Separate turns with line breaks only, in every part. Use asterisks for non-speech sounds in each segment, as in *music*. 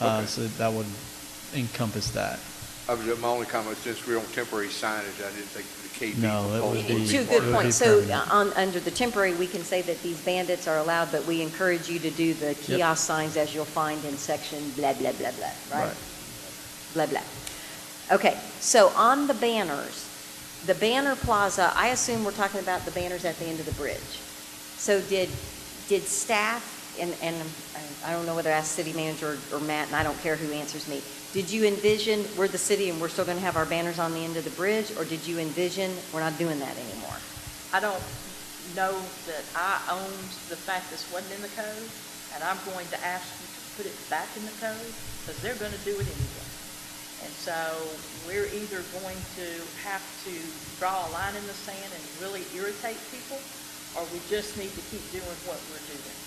Uh,
Okay.
So that would encompass that.
I was, my only comment, since we're on temporary signage, I didn't think the KB
No, that would
proposal
be-
would be
Too
Two
part
it
of
good
would
that.
points.
be
So uh,
permanent.
on, under the temporary, we can say that these bandits are allowed, but we encourage you to do the kiosk signs as you'll find in section blah, blah, blah, blah, right? Blah, blah. Okay, so on the banners, the banner plaza, I assume we're talking about the banners at the end of the bridge. So did, did staff, and, and I- I don't know whether I asked city manager or Matt, and I don't care who answers me, did you envision, we're the city and we're still going to have our banners on the end of the bridge, or did you envision, we're not doing that anymore?
I don't know that I own the fact this wasn't in the code, and I'm going to ask you to put it back in the code, because they're gonna do it anyway. And so we're either going to have to draw a line in the sand and really irritate people, or we just need to keep doing what we're doing.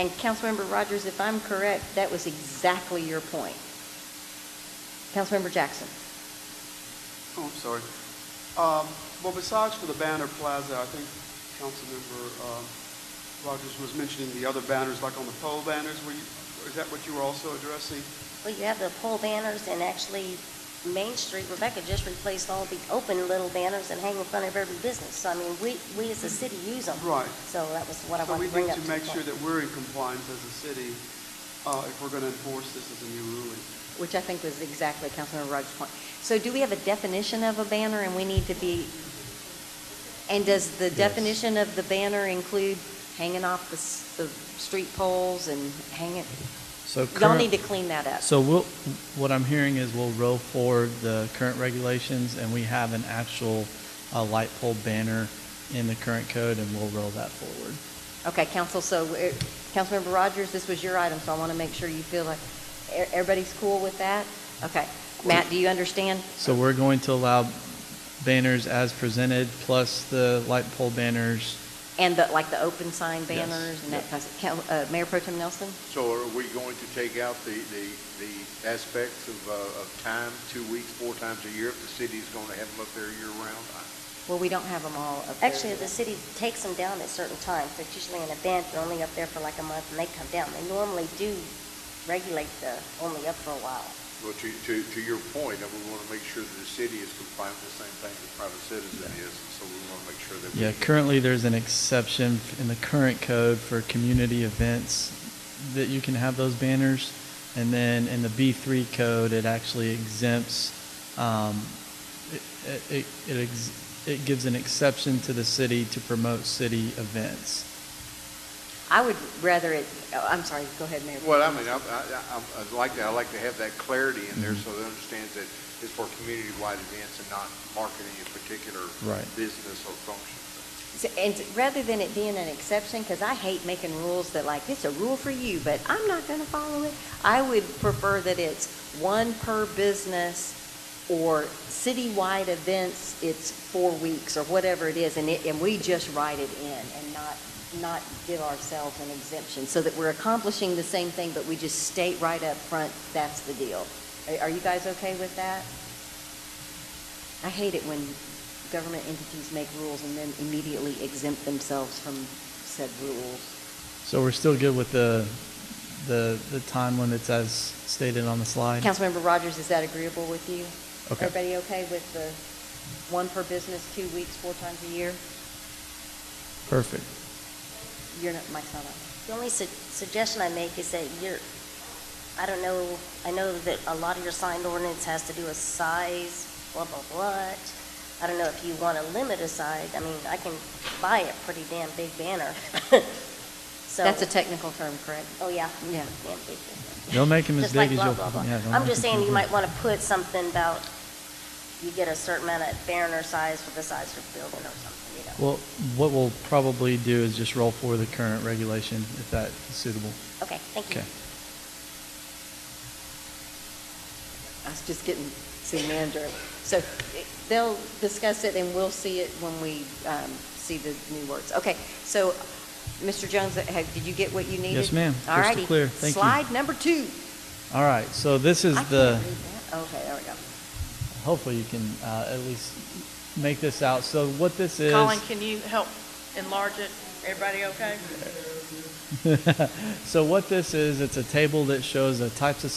And Councilmember Rogers, if I'm correct, that was exactly your point. Councilmember Jackson?
Oh, I'm sorry. Um, Well, besides for the banner plaza, I think Councilmember um, Rogers was mentioning the other banners, like on the pole banners, were you, is that what you were also addressing?
Well, you have the pole banners and actually Main Street, Rebecca just replaced all the open little banners that hang in front of every business. So I mean, we, we as a city use them.
Right.
So that was what I wanted to
So
bring
we need
up.
to
the
make
point.
sure that we're in compliance as a city, uh, if we're going to enforce this as a new ruling.
Which I think was exactly Councilmember Rogers' point. So do we have a definition of a banner and we need to be, and does the
Yes.
definition of the banner include hanging off the, s- the street poles and hanging?
So
Y'all
current-
need to clean that up.
So we'll, what I'm hearing is we'll roll forward the current regulations and we have an actual uh, light pole banner in the current code and we'll roll that forward.
Okay, council, so, uh, Councilmember Rogers, this was your item, so I want to make sure you feel like, e- everybody's cool with that? Okay. Matt, do you understand?
So we're going to allow banners as presented plus the light pole banners.
And the, like the open sign
Yes.
banners and
Yeah.
that kind of, Cal- uh, Mayor Pro Tem Nelson?
So are we going to take out the, the, the aspects of, uh, of time, two weeks, four times a year, if the city's going to have them up there year-round?
Well, we don't have them all up there
Actually,
yet.
the city takes them down at certain times. They're usually an event, they're only up there for like a month and they come down. They normally do regulate the only up for a while.
Well, to, to, to your point, and we want to make sure that the city is compliant with the same thing the private citizen is, and so we want to make sure that we.
Yeah, currently there's an exception in the current code for community events that you can have those banners. And then in the B3 code, it actually exempts, um, it, it, it, ex- it gives an exception to the city to promote city events.
I would rather it, oh, I'm sorry, go ahead, Mayor.
Well, I mean, I, I, I- I'd like that, I like to have that clarity in
Mm-hmm.
there so they understand that it's for community-wide events and not marketing a particular
Right.
business or function.
So- And rather than it being an exception, because I hate making rules that like, it's a rule for you, but I'm not going to follow it, I would prefer that it's one per business or citywide events, it's four weeks or whatever it is, and it, and we just write it in and not, not give ourselves an exemption, so that we're accomplishing the same thing, but we just state right up front, that's the deal. Are- Are you guys okay with that? I hate it when government entities make rules and then immediately exempt themselves from said rules.
So we're still good with the, the, the time limits as stated on the slide?
Councilmember Rogers, is that agreeable with you?
Okay.
Everybody okay with the one per business, two weeks, four times a year?
Perfect.
You're not, Mike's not on.
The only su- suggestion I make is that you're, I don't know, I know that a lot of your sign ordinance has to do with size, blah, blah, blah. I don't know if you want to limit a size, I mean, I can buy a pretty damn big banner. *laughs* So-
That's a technical term, correct?
Oh, yeah.
Yeah.
Damn big banner.
Don't make a
Just like
mistake as
blah,
you'll-
blah, blah.
yeah, don't
I'm
make
just
a
saying you
mistake.
might want to put something about, you get a certain amount of banner size for the size of your building or something, you know?
Well, what we'll probably do is just roll for the current regulation if that is suitable.
Okay, thank you.
Okay.
I was just getting city manager. So it- they'll discuss it and we'll see it when we um, see the new words. Okay, so Mr. Jones, have- did you get what you needed?
Yes, ma'am.
All
Crystal
righty.
clear. Thank you.
Slide number two.
All right, so this is
I can't
the,
read that. Okay, there we go.
hopefully you can uh, at least make this out. So what this is. *laughs*
Colin, can you help enlarge it? Everybody okay?
So what this is, it's a table that shows the types of